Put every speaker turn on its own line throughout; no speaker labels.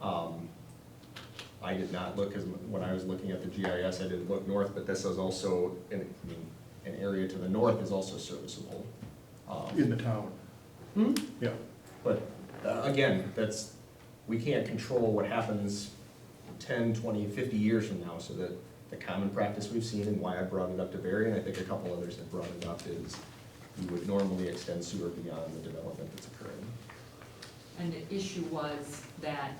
Um, I did not look, as, when I was looking at the GIS, I didn't look north, but this is also, an, I mean, an area to the north is also serviceable. Um,
in the town,
Hmm?
yeah.
But uh, again, that's, we can't control what happens 10, 20, 50 years from now. So that the common practice we've seen and why I brought it up to Barry, and I think a couple others have brought it up, is you would normally extend sewer beyond the development that's occurring.
And the issue was that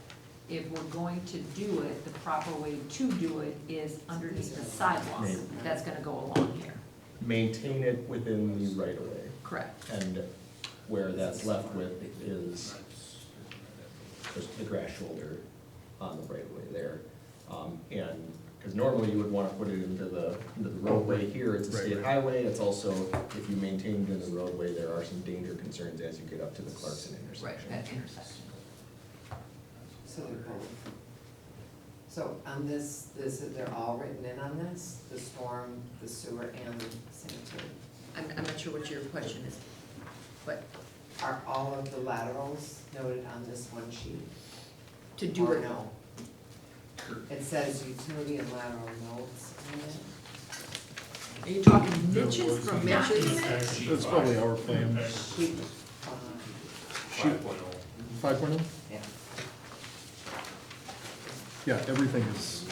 if we're going to do it, the proper way to do it is underneath the sidewalk
Maybe.
that's gonna go along here.
Maintain it within the right of way.
Correct.
And where that's left with is just the grass shoulder on the right of way there. Um, and, because normally you would want to put it into the, into the roadway here, it's a
Right,
state
right.
highway, it's also, if you maintain it in the roadway, there are some danger concerns as you get up to the Clarkson intersection.
That intersection.
So they're both. So on this, this, they're all written in on this, the storm, the sewer, and the sanitary.
I'm, I'm not sure what your question is, but
Are all of the laterals noted on this one sheet?
to do
Or
it,
no? It says utility and lateral notes on it.
are you talking niches from matches?
That's probably our plan.
Sheet five.
Five point Five point oh?
Uh, Yeah.
Yeah, everything is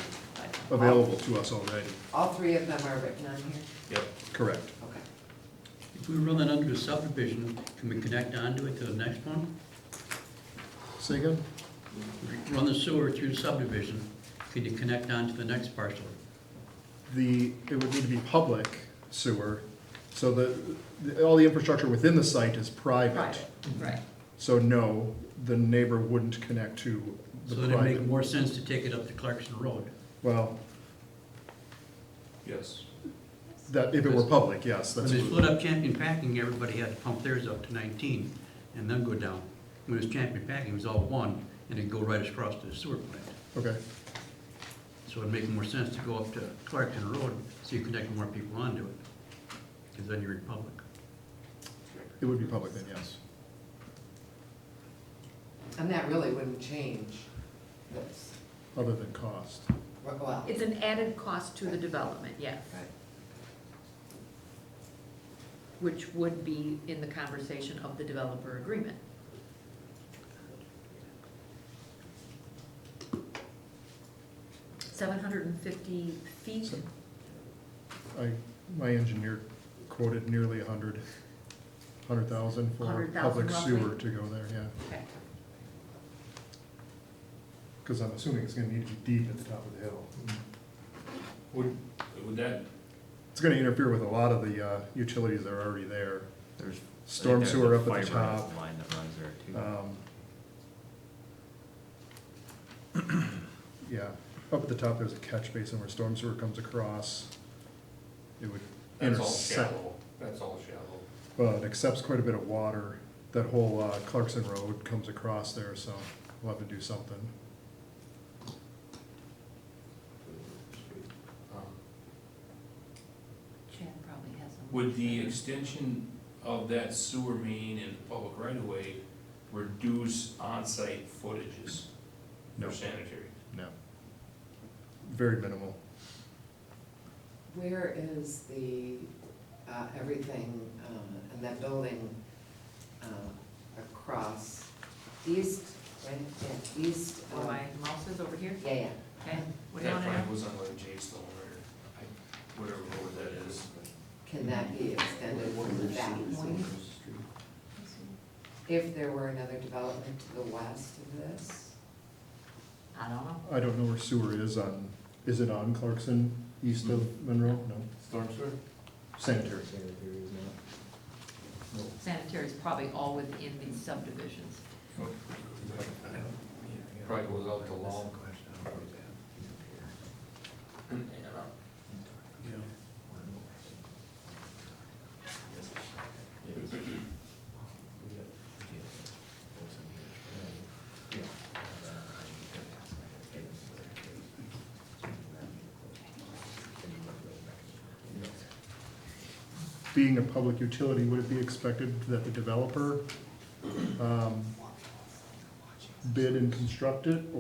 available to us already,
All three of them are written on here?
correct.
Okay.
If we run it under a subdivision, can we connect onto it to the next one?
Say again?
If you Run the sewer through subdivision, can you connect onto the next parcel?
The, it would need to be public sewer, so the, the- all the infrastructure within the site is private.
Private, right.
So no, the neighbor wouldn't connect to
So
the
that it'd make
private.
more sense to take it up to Clarkson Road.
Well,
Yes.
that, if it were public, yes,
When
that's.
they split up Champion Packing, everybody had to pump theirs up to nineteen and then go down. When it was Champion Packing, it was all one, and it'd go right across to the sewer plant.
Okay,
So it'd make more sense to go up to Clarkson Road, so you connect more people onto it, because then you're in public.
it would be public then, yes.
And that really wouldn't change this,
Other than cost.
well.
It's an added cost to the development, yes,
Right.
which would be in the conversation of the developer agreement. Seven hundred and fifty feet,
So- I, my engineer quoted nearly a hundred, hundred thousand for
100,000
public
roughly.
sewer to go there, yeah.
okay,
Because I'm assuming it's gonna need to be deep at the top of the hill.
Would, would that,
It's gonna interfere with a lot of the uh, utilities that are already there.
There's.
Storm
I think
sewer
there's
up
a
at the
fiber
top.
Line that runs there too.
Um, Yeah, up at the top, there's a catch basin where storm sewer comes across. It would
that's all
intersect,
shallow, that's all shallow.
well, it accepts quite a bit of water. That whole uh, Clarkson Road comes across there, so we'll have to do something.
Um,
Chad probably has a.
Would the extension of that sewer main in the public right of way reduce onsite footages
No.
for sanitary?
No. Very minimal.
Where is the, uh, everything, uh, and that building, uh, across east, right, yeah, east,
Where
um,
Oh, my mouse is over here,
yeah, yeah.
okay, we're
That
down there.
probably was on like J Stone or I- whatever road that is.
Can that be extended from that point? If there were another development to the west of this?
I don't know.
I don't know where sewer is on, is it on Clarkson, east of Monroe? No,
Mm-hmm. Storm sewer?
sanitary.
Sanitary is not.
Sanitary is probably all within these subdivisions.
Probably goes out to Long.
Being a public utility, would it be expected that the developer um, bid and construct it,